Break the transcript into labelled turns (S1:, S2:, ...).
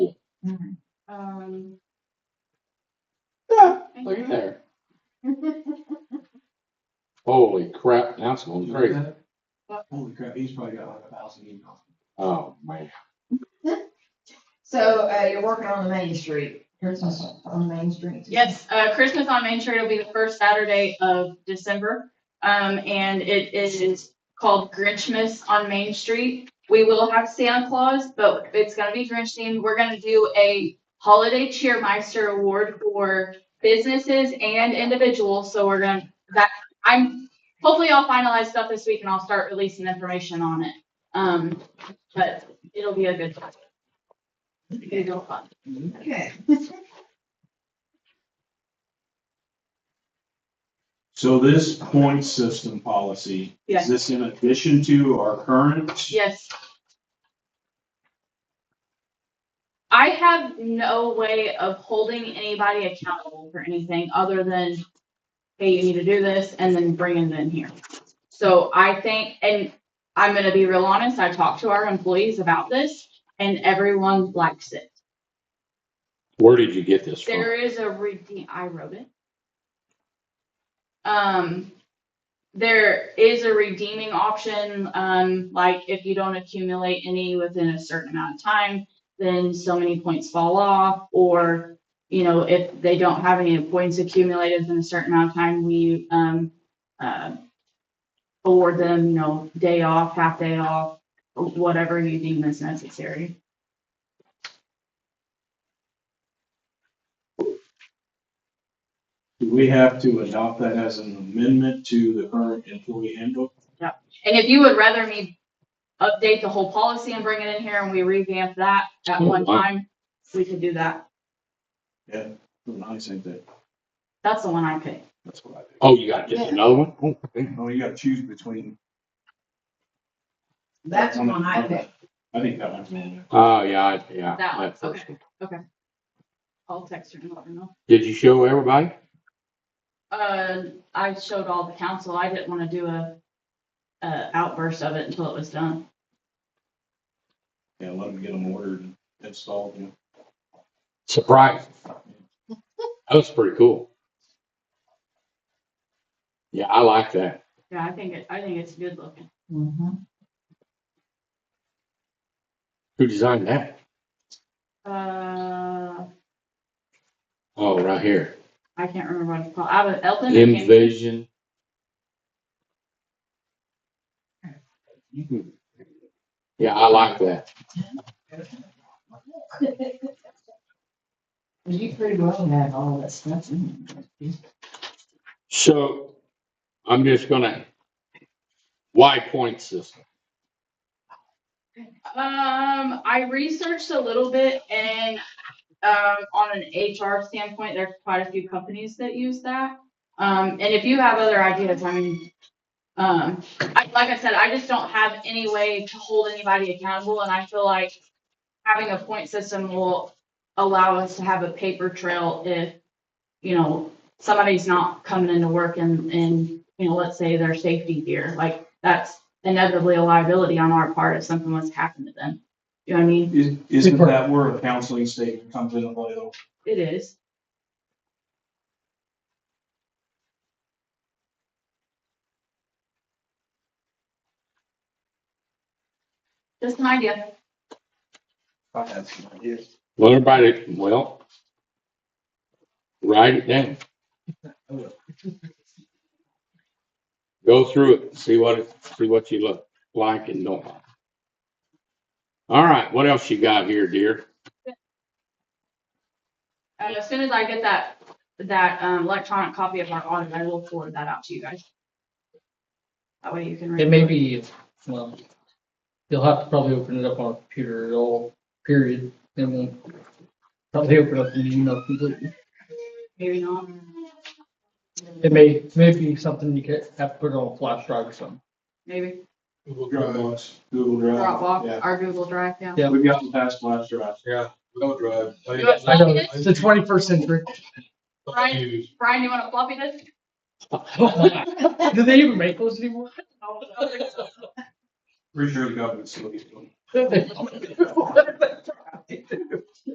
S1: Um,
S2: Yeah, look at there. Holy crap, that's going crazy.
S3: Holy crap, he's probably got like a thousand emails.
S2: Oh, man.
S4: So, uh, you're working on the Main Street, Christmas on Main Street.
S1: yes, uh, Christmas on Main Street will be the first Saturday of December. Um, and it is called Grinchmas on Main Street. We will have Santa Claus, but it's gonna be Grinch themed. We're gonna do a holiday cheermeister award for businesses and individuals. So we're gonna, that, I'm, hopefully I'll finalize stuff this week and I'll start releasing information on it. Um, but it'll be a good time. It'll be a fun.
S4: Okay.
S3: So this point system policy,
S1: Yes.
S3: is this in addition to our current?
S1: Yes. I have no way of holding anybody accountable for anything other than, hey, you need to do this, and then bringing it in here. So I think, and I'm gonna be real honest, I talked to our employees about this, and everyone likes it.
S2: Where did you get this from?
S1: There is a redeem, I wrote it. Um, there is a redeeming option, um, like if you don't accumulate any within a certain amount of time, then so many points fall off, or, you know, if they don't have any points accumulated in a certain amount of time, we, um, uh, award them, you know, day off, half day off, whatever you deem is necessary.
S3: Do we have to adopt that as an amendment to the current employee handbook?
S1: And if you would rather me update the whole policy and bring it in here and we revamp that at one
S2: Oh, wow.
S1: time, we could do that.
S3: Well, I think that,
S1: That's the one I picked.
S3: that's what I think.
S2: Oh, you got just another one? Oh, okay.
S3: Oh, you gotta choose between,
S4: That's the one I picked.
S3: I think that one's man.
S2: Oh, yeah, I- yeah.
S1: That one,
S2: first
S1: okay. I'll text her and let her know.
S2: Did you show everybody?
S1: Uh, I showed all the council. I didn't want to do a, a outburst of it until it was done.
S3: Yeah, let them get them ordered and installed, you know.
S2: Surprise. That was pretty cool. Yeah, I like that.
S1: Yeah, I think it, I think it's good looking.
S4: Mhm.
S2: Who designed that?
S1: Uh,
S2: Oh, right here.
S1: I can't remember what it's called. Out of Elton. or Cam-
S2: Envision. Yeah, I like that.
S4: You pretty well had all that stuff in there.
S2: So I'm just gonna, why point system?
S1: Um, I researched a little bit and, um, on an HR standpoint, there's quite a few companies that use that. Um, and if you have other ideas, I mean, um, I, like I said, I just don't have any way to hold anybody accountable and I feel like having a point system will allow us to have a paper trail if, you know, somebody's not coming into work and, and, you know, let's say their safety gear, like that's inevitably a liability on our part if something was to happen to them. You know what I mean?
S3: Is- Isn't that where a counseling statement comes into play though?
S1: It is. Just an idea.
S3: I have some ideas.
S2: Well, everybody, well, write it down. Go through it, see what, it see what you look like and don't like. All right, what else you got here, dear?
S1: And Uh, as soon as I get that, that um, electronic copy of our audit, I will forward that out to you guys. That way you can. read
S5: It may be, well, you'll have to probably open it up on a computer at all, period, and then probably open up the email completely.
S1: Maybe not.
S5: It may, it may be something you could have to put on a flash drive or something.
S1: Maybe
S3: Google Dropbox. Google Drive.
S1: Dropbox, our Google Drive, yeah.
S3: Yeah, we've gotten past last drive.
S6: Yeah, no drive.
S1: Yes,
S5: Oh, I know,
S1: Yes.
S5: it's the twenty-first century.
S1: Right. Brian, you want to floppy disk?
S5: Do they even make those anymore?
S3: Pretty sure the government's still using them.